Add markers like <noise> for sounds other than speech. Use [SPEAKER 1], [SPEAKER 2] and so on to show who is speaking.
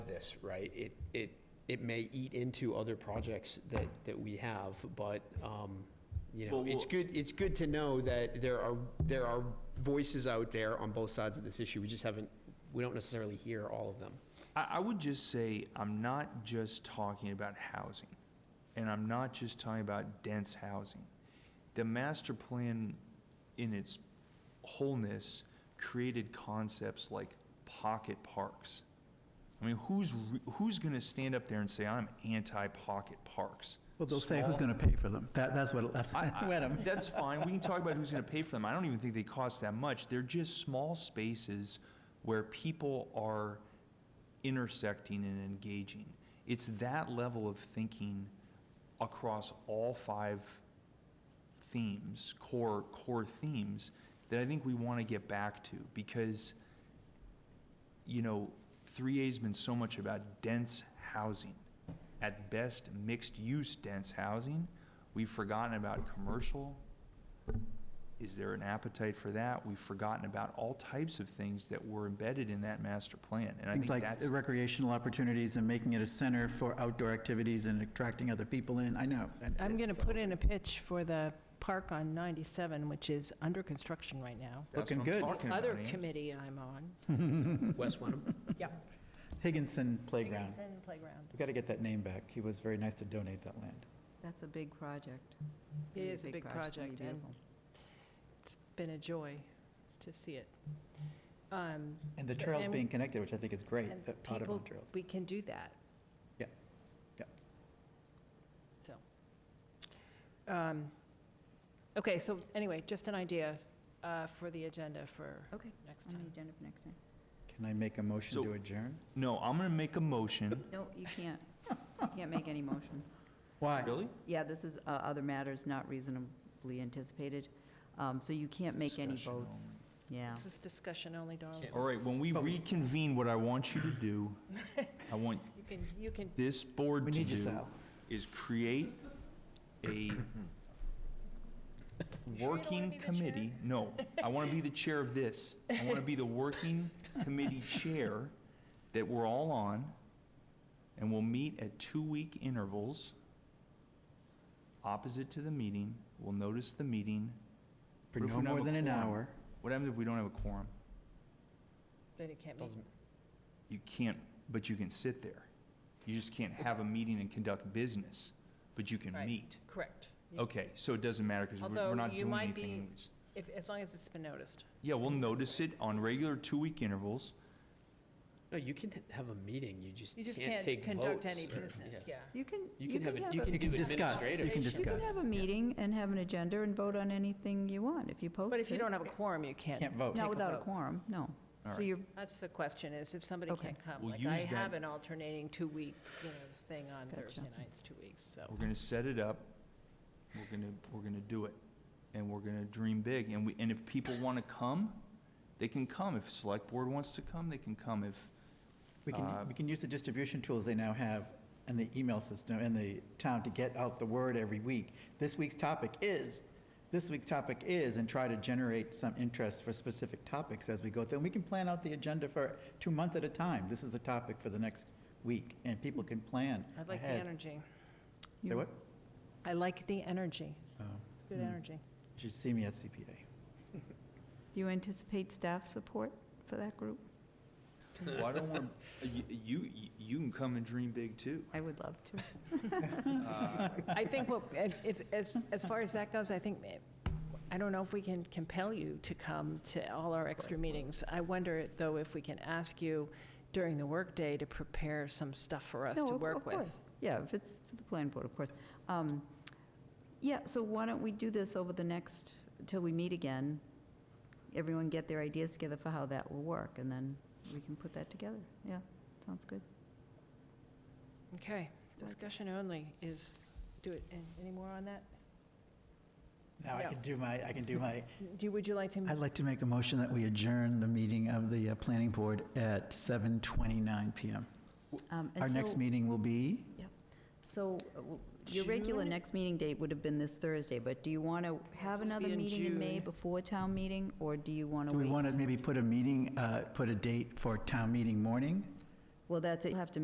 [SPEAKER 1] this, right, it, it, it may eat into other projects that, that we have, but, um, you know,
[SPEAKER 2] Well,
[SPEAKER 1] it's
[SPEAKER 2] we'll-
[SPEAKER 1] good, it's good to know that there are, there are voices out there on both sides of this issue. We just haven't, we don't necessarily hear all of them.
[SPEAKER 2] I, I would just say, I'm not just talking about housing, and I'm not just talking about dense housing. The master plan in its wholeness created concepts like pocket parks. I mean, who's, re- who's gonna stand up there and say, I'm anti-pocket parks?
[SPEAKER 3] Well, they'll say who's
[SPEAKER 2] Small-
[SPEAKER 3] going to pay for them. That, that's what, that's <laughs>
[SPEAKER 2] I- I-
[SPEAKER 3] what I'm,
[SPEAKER 2] That's fine, we can talk about who's gonna pay for them, I don't even think they cost that much, they're just small spaces where people are intersecting and engaging. It's that level of thinking across all five themes, core, core themes, that I think we wanna get back to, because, you know, three A's been so much about dense housing. At best, mixed-use dense housing. We've forgotten about commercial. Is there an appetite for that? We've forgotten about all types of things that were embedded in that master plan. And I think
[SPEAKER 3] things like
[SPEAKER 2] that's,
[SPEAKER 3] recreational opportunities and making it a center for outdoor activities and attracting other people in. I know. and
[SPEAKER 4] I'm going to
[SPEAKER 3] it's
[SPEAKER 4] put in a pitch for the park on 97, which is under construction right now.
[SPEAKER 2] that's
[SPEAKER 3] looking
[SPEAKER 2] what
[SPEAKER 3] good.
[SPEAKER 2] I'm talking about,
[SPEAKER 4] Other
[SPEAKER 2] Ann.
[SPEAKER 4] committee I'm on.
[SPEAKER 1] Wes Wenham?
[SPEAKER 4] Yep.
[SPEAKER 3] Higginson Playground.
[SPEAKER 4] Higginson Playground.
[SPEAKER 3] We've got to get that name back. He was very nice to donate that land.
[SPEAKER 5] That's a big project.
[SPEAKER 4] It
[SPEAKER 5] It's gonna be
[SPEAKER 4] is a big
[SPEAKER 5] It's gonna be
[SPEAKER 4] project, and
[SPEAKER 5] beautiful.
[SPEAKER 4] it's been a joy to see it. Um,
[SPEAKER 3] And the trails
[SPEAKER 4] And-
[SPEAKER 3] being connected, which I think is great,
[SPEAKER 4] and
[SPEAKER 3] the
[SPEAKER 4] people-
[SPEAKER 3] Audubon trails.
[SPEAKER 4] We can do that.
[SPEAKER 3] Yeah. Yeah.
[SPEAKER 4] So. um, Okay, so anyway, just an idea uh, for the agenda for
[SPEAKER 5] Okay,
[SPEAKER 4] next
[SPEAKER 5] on the
[SPEAKER 4] time.
[SPEAKER 5] agenda for next time.
[SPEAKER 3] Can I make a motion
[SPEAKER 2] So-
[SPEAKER 3] to adjourn?
[SPEAKER 2] No, I'm gonna make a motion.
[SPEAKER 5] No, you can't, you can't make any motions.
[SPEAKER 3] Why?
[SPEAKER 2] Really?
[SPEAKER 5] Yeah, this is uh, other matters not reasonably anticipated, Um, so you can't make any
[SPEAKER 2] Discussion
[SPEAKER 5] votes.
[SPEAKER 2] only.
[SPEAKER 5] Yeah.
[SPEAKER 4] This is discussion only, darling.
[SPEAKER 1] Can't-
[SPEAKER 2] All right, when we
[SPEAKER 3] But we-
[SPEAKER 2] reconvene, what I want you to do, I want
[SPEAKER 4] You can, you can
[SPEAKER 2] this board
[SPEAKER 3] We
[SPEAKER 2] to
[SPEAKER 3] need you,
[SPEAKER 2] do
[SPEAKER 3] Sal.
[SPEAKER 2] is create a
[SPEAKER 4] don't wanna be
[SPEAKER 2] working
[SPEAKER 4] the chair?
[SPEAKER 2] committee. No, I want to be the chair of this. I want to be the working
[SPEAKER 4] <laughs>
[SPEAKER 2] committee chair that we're all on, and we'll meet at two-week intervals, opposite to the meeting. We'll notice the meeting.
[SPEAKER 3] For
[SPEAKER 2] What if
[SPEAKER 3] no
[SPEAKER 2] we don't
[SPEAKER 3] more
[SPEAKER 2] have a
[SPEAKER 3] than an
[SPEAKER 2] quorum?
[SPEAKER 3] hour.
[SPEAKER 2] What happens if we don't have a quorum?
[SPEAKER 4] Then you can't make,
[SPEAKER 1] Doesn't-
[SPEAKER 2] You can't, but you can sit there. You just can't have a meeting and conduct business, but you can
[SPEAKER 4] Right.
[SPEAKER 2] meet.
[SPEAKER 4] correct. You-
[SPEAKER 2] Okay, so it doesn't matter because we're
[SPEAKER 4] Although
[SPEAKER 2] not
[SPEAKER 4] you
[SPEAKER 2] doing
[SPEAKER 4] might
[SPEAKER 2] anything
[SPEAKER 4] be-
[SPEAKER 2] anyways.
[SPEAKER 4] If, as long as it's been noticed.
[SPEAKER 2] Yeah, we'll notice it on regular two-week intervals.
[SPEAKER 1] No, you can have a meeting, you just
[SPEAKER 4] You just
[SPEAKER 1] can't
[SPEAKER 4] can't
[SPEAKER 1] take votes.
[SPEAKER 4] conduct any
[SPEAKER 1] or- <laughs>
[SPEAKER 4] business, yeah.
[SPEAKER 5] You can,
[SPEAKER 1] You can have, a- you
[SPEAKER 5] a-
[SPEAKER 1] can
[SPEAKER 3] You
[SPEAKER 1] do
[SPEAKER 3] can discuss, you
[SPEAKER 1] administrative.
[SPEAKER 3] can
[SPEAKER 4] You
[SPEAKER 5] you can have
[SPEAKER 3] discuss.
[SPEAKER 5] a meeting and have an agenda and vote on anything you want, if you post it.
[SPEAKER 4] But if you don't have a quorum, you can't.
[SPEAKER 3] Can't vote.
[SPEAKER 4] take a
[SPEAKER 5] Not without a
[SPEAKER 4] vote.
[SPEAKER 5] quorum, no.
[SPEAKER 2] All
[SPEAKER 5] So
[SPEAKER 2] right.
[SPEAKER 5] you're,
[SPEAKER 4] That's the question, is if somebody
[SPEAKER 5] Okay.
[SPEAKER 4] can't come.
[SPEAKER 2] We'll
[SPEAKER 4] Like, I
[SPEAKER 2] use that-
[SPEAKER 4] have an alternating two-week, you know, thing on
[SPEAKER 5] Gotcha.
[SPEAKER 4] Thursday nights, two weeks, so.
[SPEAKER 2] We're gonna set it up, we're gonna, we're gonna do it, and we're gonna dream big, and we, and if people wanna come, they can come. If select board wants to come, they can come. If,
[SPEAKER 3] We can,
[SPEAKER 2] Uh,
[SPEAKER 3] we can use the distribution tools they now have and the email system and the town to get out the word every week. This week's topic is, this week's topic is, and try to generate some interest for specific topics as we go through. And we can plan out the agenda for two months at a time. This is the topic for the next week, and people can plan
[SPEAKER 4] I like the
[SPEAKER 3] ahead.
[SPEAKER 4] energy.
[SPEAKER 3] Say what?
[SPEAKER 4] I like the energy.
[SPEAKER 3] Oh,
[SPEAKER 4] It's Good
[SPEAKER 3] Hmm.
[SPEAKER 4] energy.
[SPEAKER 3] You should see me at CPA.
[SPEAKER 5] do you anticipate staff support for that group?
[SPEAKER 2] well, I don't wanna, you, you, you can come and dream big too.
[SPEAKER 5] I would love to.
[SPEAKER 4] I think, what- if, as, as far as that goes, I think, eh, I don't know if we can compel you to come to all our extra meetings. I wonder, though, if we can ask you during the workday to prepare some stuff for us
[SPEAKER 5] No,
[SPEAKER 4] to
[SPEAKER 5] of-
[SPEAKER 4] work
[SPEAKER 5] of
[SPEAKER 4] with.
[SPEAKER 5] course. Yeah, if it's for the planning board, of course. Um, Yeah, so why don't we do this over the next, till we meet again? Everyone get their ideas together for how that will work, and then we can put that together. Yeah, sounds good.
[SPEAKER 4] Okay, discussion only is, do it, an- any more on that?
[SPEAKER 3] Now I
[SPEAKER 4] Yeah.
[SPEAKER 3] can do my, I can do my,
[SPEAKER 4] Do, you- would you like to,
[SPEAKER 3] I'd like to make a motion that we adjourn the meeting of the uh, planning board at 7:29 PM.
[SPEAKER 5] Um,
[SPEAKER 3] Our
[SPEAKER 5] and
[SPEAKER 3] next
[SPEAKER 5] so-
[SPEAKER 3] meeting will be?
[SPEAKER 5] So uh, w- your regular
[SPEAKER 4] June?
[SPEAKER 5] next meeting date would have been this Thursday, but do you want to have
[SPEAKER 4] would
[SPEAKER 5] another
[SPEAKER 4] be in
[SPEAKER 5] meeting in May
[SPEAKER 4] June.
[SPEAKER 5] before town meeting, or do you want to
[SPEAKER 3] Do
[SPEAKER 5] wait?
[SPEAKER 3] we want to maybe put a meeting, uh, put a date for town meeting morning?
[SPEAKER 5] Well, that's, it. you have to